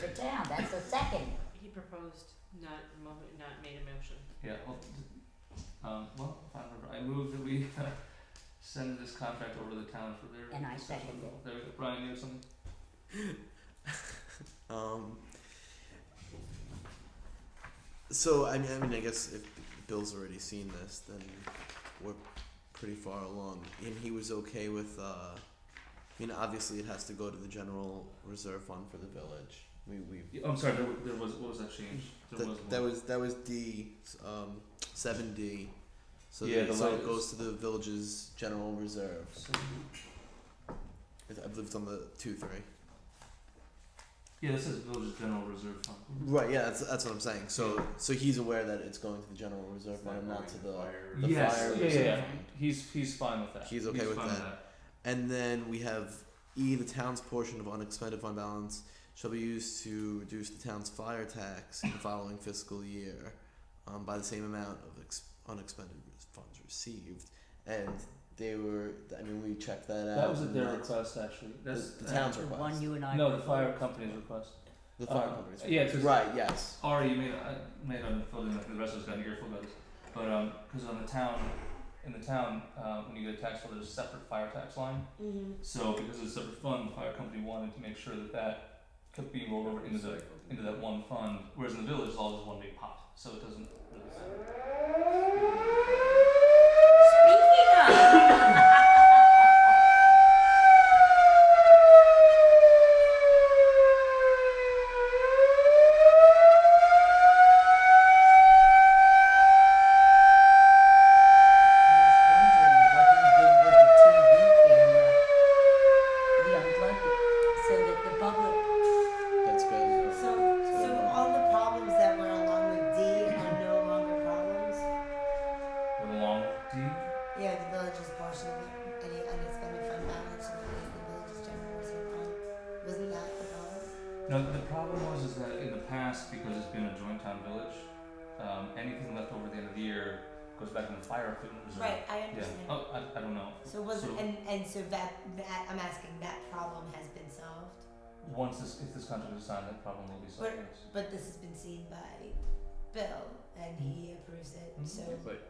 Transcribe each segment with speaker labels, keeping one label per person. Speaker 1: that's the second.
Speaker 2: He proposed, not mo- not made a motion.
Speaker 3: Yeah, well, d- um, well, I don't remember, I moved that we uh, send this contract over to the town for their
Speaker 1: And I
Speaker 3: discussion.
Speaker 1: second it.
Speaker 3: There we go, Brian, you have something?
Speaker 4: Um, so I mean, I mean, I guess if Bill's already seen this, then we're pretty far along. And he was okay with. Uh, I mean, obviously, it has to go to the general reserve fund for the village. We we
Speaker 3: Yeah, I'm sorry, there, wa- there was, what was that change? There was
Speaker 4: that,
Speaker 3: one.
Speaker 4: that was that was D um seven D. So
Speaker 3: Yeah,
Speaker 4: the,
Speaker 3: the
Speaker 4: so
Speaker 3: light
Speaker 4: it
Speaker 3: is-
Speaker 4: goes to the village's general reserve.
Speaker 3: So,
Speaker 4: I th- I believe it's on the two three.
Speaker 3: yeah, this says Village's General Reserve Fund.
Speaker 4: Right. Yeah. That's that's what I'm saying. So so he's aware that it's going to the general reserve
Speaker 5: It's
Speaker 4: fund, and
Speaker 5: not
Speaker 4: not to
Speaker 5: going
Speaker 4: the.
Speaker 5: fire-
Speaker 4: the
Speaker 3: yes,
Speaker 4: fire
Speaker 3: yeah, yeah,
Speaker 4: reserve
Speaker 3: yeah.
Speaker 4: fund.
Speaker 3: He's he's fine with that.
Speaker 4: He's okay with
Speaker 3: fine
Speaker 4: that. And then we have E, the town's portion of unexpended fund balance shall be used to reduce the town's fire tax in the following fiscal year um, by the same amount of ex- unexpended funds received. And they were, I mean, we checked that out.
Speaker 3: That, was at
Speaker 4: and
Speaker 3: their
Speaker 4: that's-
Speaker 3: request, actually. That's
Speaker 4: The- the town's
Speaker 1: The
Speaker 4: request.
Speaker 1: one you and I.
Speaker 3: No, the
Speaker 1: wrote.
Speaker 3: fire company's request.
Speaker 4: The fire
Speaker 3: uh,
Speaker 4: company's
Speaker 3: yeah, it's just-
Speaker 4: Right, yes.
Speaker 3: Ari, you may I may not have filled in like the rest of us got an earful about this, but um, because on the town, in the town, uh, when you get a tax bill, there's a separate fire tax line.
Speaker 2: Mm-hmm.
Speaker 3: So because it's a separate fund, the fire company wanted to make sure that that could be rolled over into the into that one fund, whereas in the village, it's all just one big pot, so it doesn't. Really matter.
Speaker 1: Speaking of. Um.
Speaker 4: That's good.
Speaker 6: So, so all the problems that went along with D are no longer problems?
Speaker 3: With a long D.
Speaker 6: Yeah, the village's portion of it, any unexpended fund balance should be raised in the village's general reserve fund. Wasn't that the problem?
Speaker 3: No, the problem was is that in the past, because it's been a joint town village, um, anything left over at the end of the year goes back in the fire equipment reserve.
Speaker 6: Right, I
Speaker 3: Yeah.
Speaker 6: understand.
Speaker 3: Oh, I, I don't know.
Speaker 6: So
Speaker 3: so-
Speaker 6: wasn't, and, and so that, that, I'm asking, that problem has been solved?
Speaker 3: Once this, if this contract is signed, that problem will be solved.
Speaker 6: But-
Speaker 3: yes.
Speaker 6: But this has been seen by Bill and he approves it,
Speaker 3: Mhm.
Speaker 6: so.
Speaker 5: But,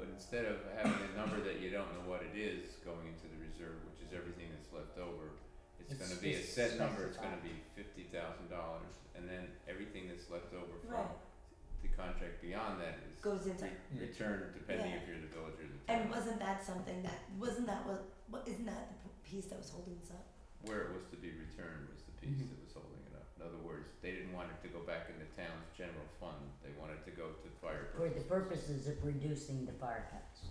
Speaker 5: but instead of having a number that you don't know what it is going into the reserve, which is everything that's left over, it's
Speaker 3: It's-
Speaker 5: gonna be a
Speaker 3: it's
Speaker 5: set number, it's
Speaker 3: specified.
Speaker 5: gonna be fifty thousand dollars, and then everything that's left over from
Speaker 6: Right.
Speaker 5: the contract beyond that is
Speaker 6: Goes into-
Speaker 5: re- returned depending if you're the village or the town.
Speaker 6: And wasn't that something that, wasn't that what, what, isn't that the p- piece that was holding us up?
Speaker 5: Where it was to be returned was the piece
Speaker 3: Mhm.
Speaker 6: Mm-hmm.
Speaker 5: that was holding it up. In other words, they didn't want it to go back in the town's general fund, they wanted to go to fire
Speaker 1: For the purposes
Speaker 5: purposes.
Speaker 1: of reducing the fire cuts.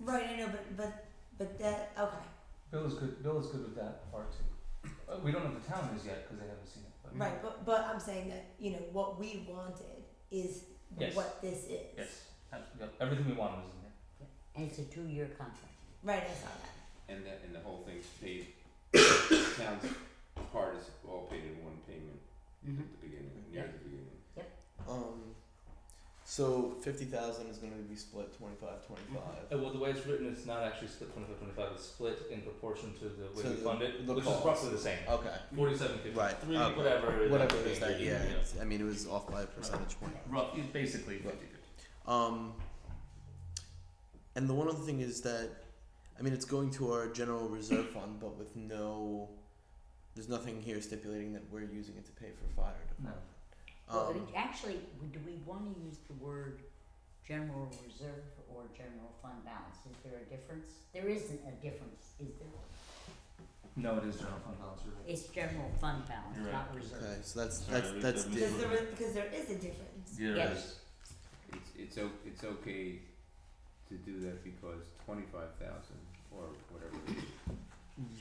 Speaker 6: Right, I know, but, but, but that, okay,
Speaker 3: Bill is good. Bill is good with that part too. Uh, we don't know what the town is yet because they haven't seen it. But
Speaker 6: right, but, but I'm saying that, you know, what we wanted is
Speaker 3: Yes.
Speaker 6: what this is.
Speaker 3: Yes. Absolutely. Yep. Everything we wanted is in there.
Speaker 1: And it's a two-year contract.
Speaker 6: Right, I saw that.
Speaker 5: And the, and the whole thing's paid, town's part is all paid in one payment
Speaker 1: Mm-hmm.
Speaker 5: at the beginning, near the beginning.
Speaker 4: Um, so 50000 is going to be split 25 25.
Speaker 3: Uh, well, the way it's written, it's not actually split 25-25. It's split in proportion to the way
Speaker 4: To
Speaker 3: we
Speaker 4: the-
Speaker 3: fund it,
Speaker 4: the
Speaker 3: which
Speaker 4: cost.
Speaker 3: is roughly the same.
Speaker 4: Okay.
Speaker 3: Forty-seven fifty.
Speaker 4: Right,
Speaker 3: Three,
Speaker 4: okay.
Speaker 3: whatever.
Speaker 4: Whatever
Speaker 3: that
Speaker 4: it is
Speaker 3: would
Speaker 4: that,
Speaker 3: be,
Speaker 4: yeah. it's- I mean, it was off by a percentage point.
Speaker 3: Rough, it's basically
Speaker 4: Right.
Speaker 3: 50
Speaker 4: Um, and the one other thing is that, I mean, it's going to our general reserve fund, but with no, there's nothing here stipulating that we're using it to pay for fire
Speaker 3: No.
Speaker 4: department.
Speaker 1: Well,
Speaker 4: Um,
Speaker 1: it- actually, do we wanna use the word general reserve or general fund balance? Is there a difference? There isn't a difference, is there?
Speaker 3: No, it is general fund balance. you're right.
Speaker 1: It's general fund balance,
Speaker 3: You're right. Uh,
Speaker 1: not reserve.
Speaker 4: okay, so that's
Speaker 3: Sorry,
Speaker 4: that's
Speaker 3: we-
Speaker 4: that's
Speaker 3: we-
Speaker 4: di-
Speaker 6: Because there, because there is a difference.
Speaker 3: Yeah,
Speaker 1: Yes.
Speaker 3: it is.
Speaker 5: It's, it's o- it's okay to do that because twenty-five thousand or whatever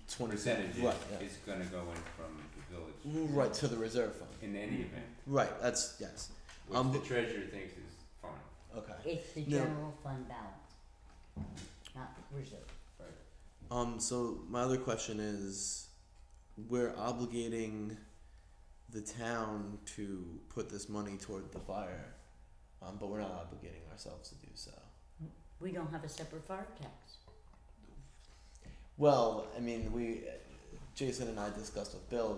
Speaker 4: twenty
Speaker 5: percentage
Speaker 4: Right, yeah.
Speaker 5: is gonna go in from the village
Speaker 4: right to the reserve fund.
Speaker 5: in any event,
Speaker 4: Right, that's yes. Um,
Speaker 5: which the treasurer thinks is fine,
Speaker 4: Okay.
Speaker 1: It's the
Speaker 4: No.
Speaker 1: general fund balance, not reserve.
Speaker 5: right?
Speaker 4: Um, so my other question is, we're obligating the town to put this money toward the fire, um, but we're not obligating ourselves to do so.
Speaker 1: We don't have a separate fire tax.
Speaker 4: Well, I mean, we, Jason and I discussed with Bill,